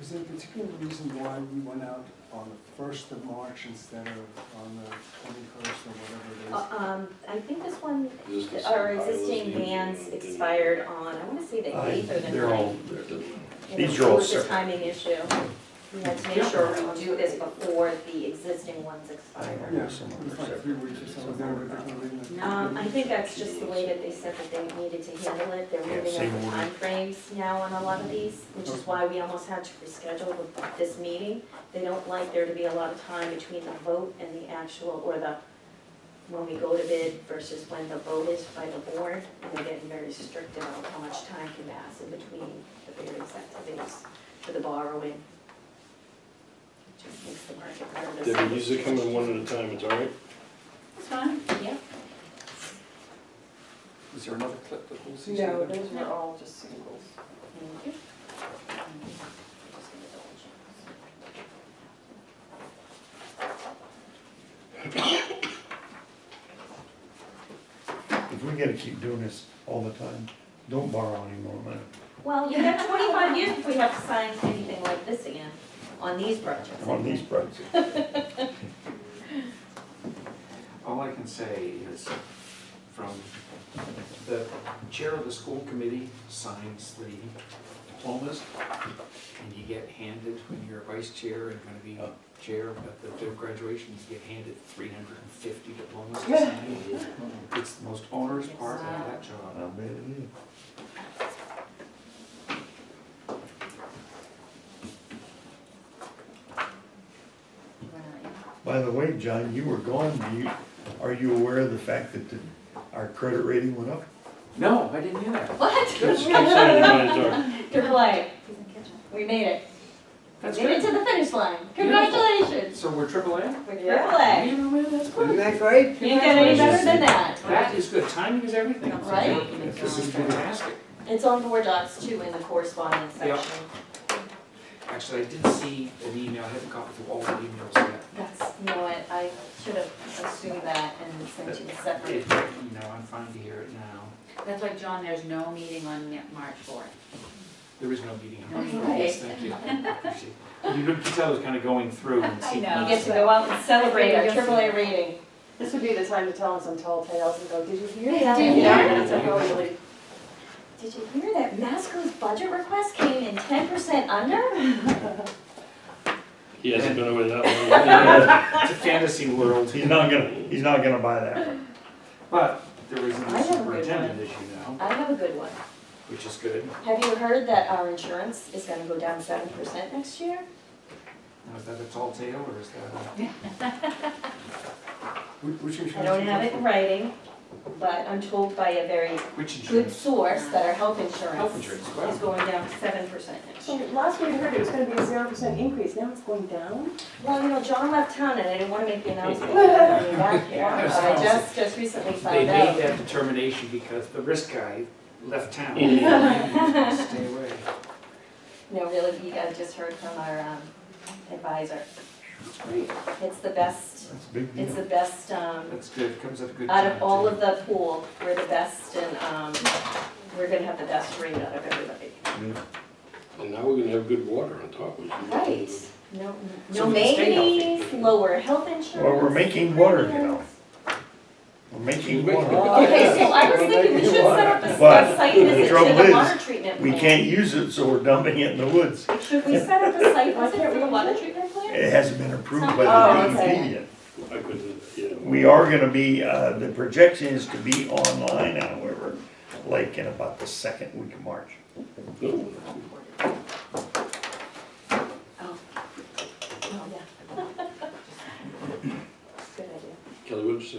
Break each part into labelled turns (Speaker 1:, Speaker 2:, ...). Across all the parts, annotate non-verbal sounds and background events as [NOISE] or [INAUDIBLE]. Speaker 1: Is there a particular reason why we went out on the first of March instead of on the twenty-first or whatever it
Speaker 2: Uh, Um, I think this one,
Speaker 3: Is this the
Speaker 2: our
Speaker 3: same
Speaker 2: existing
Speaker 3: bylaws?
Speaker 2: bans expired on, I wanna say the
Speaker 4: I-
Speaker 2: eighth or the
Speaker 4: They're all,
Speaker 2: ninth.
Speaker 4: they're-
Speaker 2: And
Speaker 4: these
Speaker 2: it
Speaker 4: are all
Speaker 2: was a
Speaker 4: separate.
Speaker 2: timing issue. We had to make sure we do this before the existing ones expire.
Speaker 1: is? Yeah, it was like three weeks or so, is there a particular reason?
Speaker 2: Um, I think that's just the way that they said that they needed to handle it, they're
Speaker 4: Yeah,
Speaker 2: moving
Speaker 4: same
Speaker 2: up the
Speaker 4: order.
Speaker 2: timeframes now on a lot of these, which is why we almost had to reschedule the- this meeting. They don't like there to be a lot of time between the vote and the actual, or the, when we go to bid versus when the vote is by the board, and they're getting very strict about how much time can pass in between the various activities for the borrowing. Just makes the market nervous.
Speaker 3: Debbie, these are coming one at a time, it's all
Speaker 2: [LAUGHS]
Speaker 3: right?
Speaker 5: That's fine.
Speaker 2: Yeah.
Speaker 1: Is there another clip that we'll see?
Speaker 6: No, those were all Oh, just singles.
Speaker 2: Thank you.
Speaker 4: If we gotta keep doing this all the time, don't borrow any more money.
Speaker 2: Well, you have twenty-five years if we have to sign anything like this again, on these projects.
Speaker 4: on these projects.
Speaker 7: All I can say is, from the chair of the school committee signs the diplomas, and you get handed, when you're a vice chair and gonna be chair at the graduation, you get handed three hundred and fifty diplomas to sign. It's the most onerous part of that
Speaker 4: I
Speaker 7: job.
Speaker 4: bet it is. By the way, John, you were gone, do you, are you aware of the fact that the, our credit rating went up?
Speaker 7: No, I didn't hear that.
Speaker 2: [LAUGHS]
Speaker 3: That's
Speaker 2: What?
Speaker 3: what I'm saying, everybody's all right.
Speaker 2: Good play. We made it.
Speaker 7: That's
Speaker 2: Made it to
Speaker 7: good.
Speaker 2: the finish line. Congratulations.
Speaker 7: So we're triple A?
Speaker 2: We're
Speaker 6: Yeah.
Speaker 2: triple A.
Speaker 7: That's
Speaker 6: Isn't
Speaker 7: good.
Speaker 6: that great?
Speaker 2: Can't get any better than that.
Speaker 7: That is good. Timing is everything.
Speaker 2: Right?
Speaker 7: This is fantastic.
Speaker 2: It's on board docs too in the correspondence
Speaker 7: Yeah.
Speaker 2: section.
Speaker 7: Actually, I did see an email, I haven't gotten through all the emails yet.
Speaker 2: That's, you know what, I should have assumed that and sent you a separate.
Speaker 7: It, you know, I'm fine to hear it now.
Speaker 5: That's why, John, there's no meeting on Ma- March fourth.
Speaker 7: There is no meeting.
Speaker 5: No meeting.
Speaker 7: Yes, thank you. I appreciate it. You could tell I was kind of going through and
Speaker 5: I
Speaker 7: seeing.
Speaker 5: know.
Speaker 2: You get to go out and celebrate our triple A rating.
Speaker 6: This would be the time to tell them some tall tales and go, did you hear
Speaker 2: Yeah.
Speaker 6: that?
Speaker 2: Did you hear
Speaker 7: that?
Speaker 6: So go really
Speaker 2: Did you hear that Masco's budget request came in ten percent under?
Speaker 3: He hasn't been away that long.
Speaker 7: [LAUGHS] It's a fantasy world.
Speaker 4: [LAUGHS] He's not gonna, he's not gonna buy that one.
Speaker 7: But there is
Speaker 2: I
Speaker 7: no
Speaker 2: have a good
Speaker 7: superintendent, as you know,
Speaker 2: I have a good one.
Speaker 7: which is good.
Speaker 2: Have you heard that our insurance is gonna go down seven percent next year?
Speaker 7: Now, is that a tall tale or is that
Speaker 1: Which which insurance?
Speaker 2: I don't have it in writing, but I'm told by a very
Speaker 7: a, which
Speaker 2: good
Speaker 7: insurance?
Speaker 2: source that our health
Speaker 7: Health
Speaker 2: insurance
Speaker 7: insurance,
Speaker 2: is
Speaker 7: well,
Speaker 2: going down seven percent next
Speaker 6: So
Speaker 2: year.
Speaker 6: last we heard it was gonna be a zero percent increase, now it's going down?
Speaker 2: Well, you know, John left town and I didn't wanna make the announcement [LAUGHS] when he came back here, but I just, just recently
Speaker 7: they
Speaker 2: found
Speaker 7: made
Speaker 2: out.
Speaker 7: that determination because the risk guy left town. [LAUGHS] Stay away.
Speaker 2: No, really, we, I just heard from our um, advisor.
Speaker 7: That's great.
Speaker 2: It's the best,
Speaker 4: That's a big
Speaker 2: it's
Speaker 4: deal.
Speaker 2: the best, um,
Speaker 7: That's good. Comes at a good
Speaker 2: out
Speaker 7: time.
Speaker 2: of all
Speaker 7: too.
Speaker 2: of the pool, we're the best and, um, we're gonna have the best rate out of everybody.
Speaker 3: And now we're gonna have good water on top of it.
Speaker 2: Right, no,
Speaker 7: So
Speaker 2: no
Speaker 7: we can stay
Speaker 2: maintenance,
Speaker 7: healthy.
Speaker 2: lower health insurance.
Speaker 4: Well, we're making water, you know. We're making water.
Speaker 2: Okay, so I was thinking we should set up a
Speaker 4: But
Speaker 2: a site visit
Speaker 4: trouble
Speaker 2: to the
Speaker 4: is,
Speaker 2: water treatment
Speaker 4: We
Speaker 2: plant.
Speaker 4: can't use it, so we're dumping it in the woods.
Speaker 2: Should we set up a site
Speaker 6: Why
Speaker 2: visit
Speaker 6: can't
Speaker 2: for the
Speaker 6: we-
Speaker 2: water treatment plant?
Speaker 4: It hasn't been approved by
Speaker 6: Oh,
Speaker 4: the
Speaker 6: okay.
Speaker 4: DEP yet.
Speaker 3: I couldn't, yeah.
Speaker 4: We are gonna be, uh, the projection is to be online, however, like in about the second week of March.
Speaker 3: No.
Speaker 2: Oh, yeah. [LAUGHS] Good idea.
Speaker 3: Kelly, what did you say?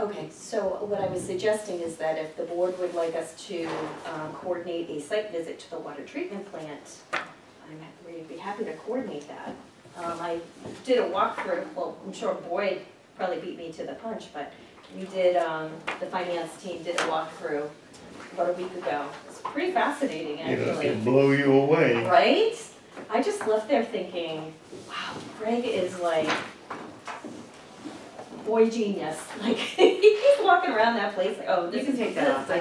Speaker 2: Okay, so what I was suggesting is that if the board would like us to um, coordinate a site visit to the water treatment plant, I'm ha- we'd be happy to coordinate that. Um, I did a walkthrough, well, I'm sure Boyd probably beat me to the punch, but we did, um, the finance team did a walkthrough about a week ago. It's pretty fascinating,
Speaker 4: It'll,
Speaker 2: actually.
Speaker 4: it'll blow you away.
Speaker 2: Right? I just left there thinking, wow, Greg is like [LAUGHS] boy genius. Like he's walking around that place like, oh,
Speaker 5: You
Speaker 2: this
Speaker 5: can
Speaker 2: is
Speaker 5: take that off.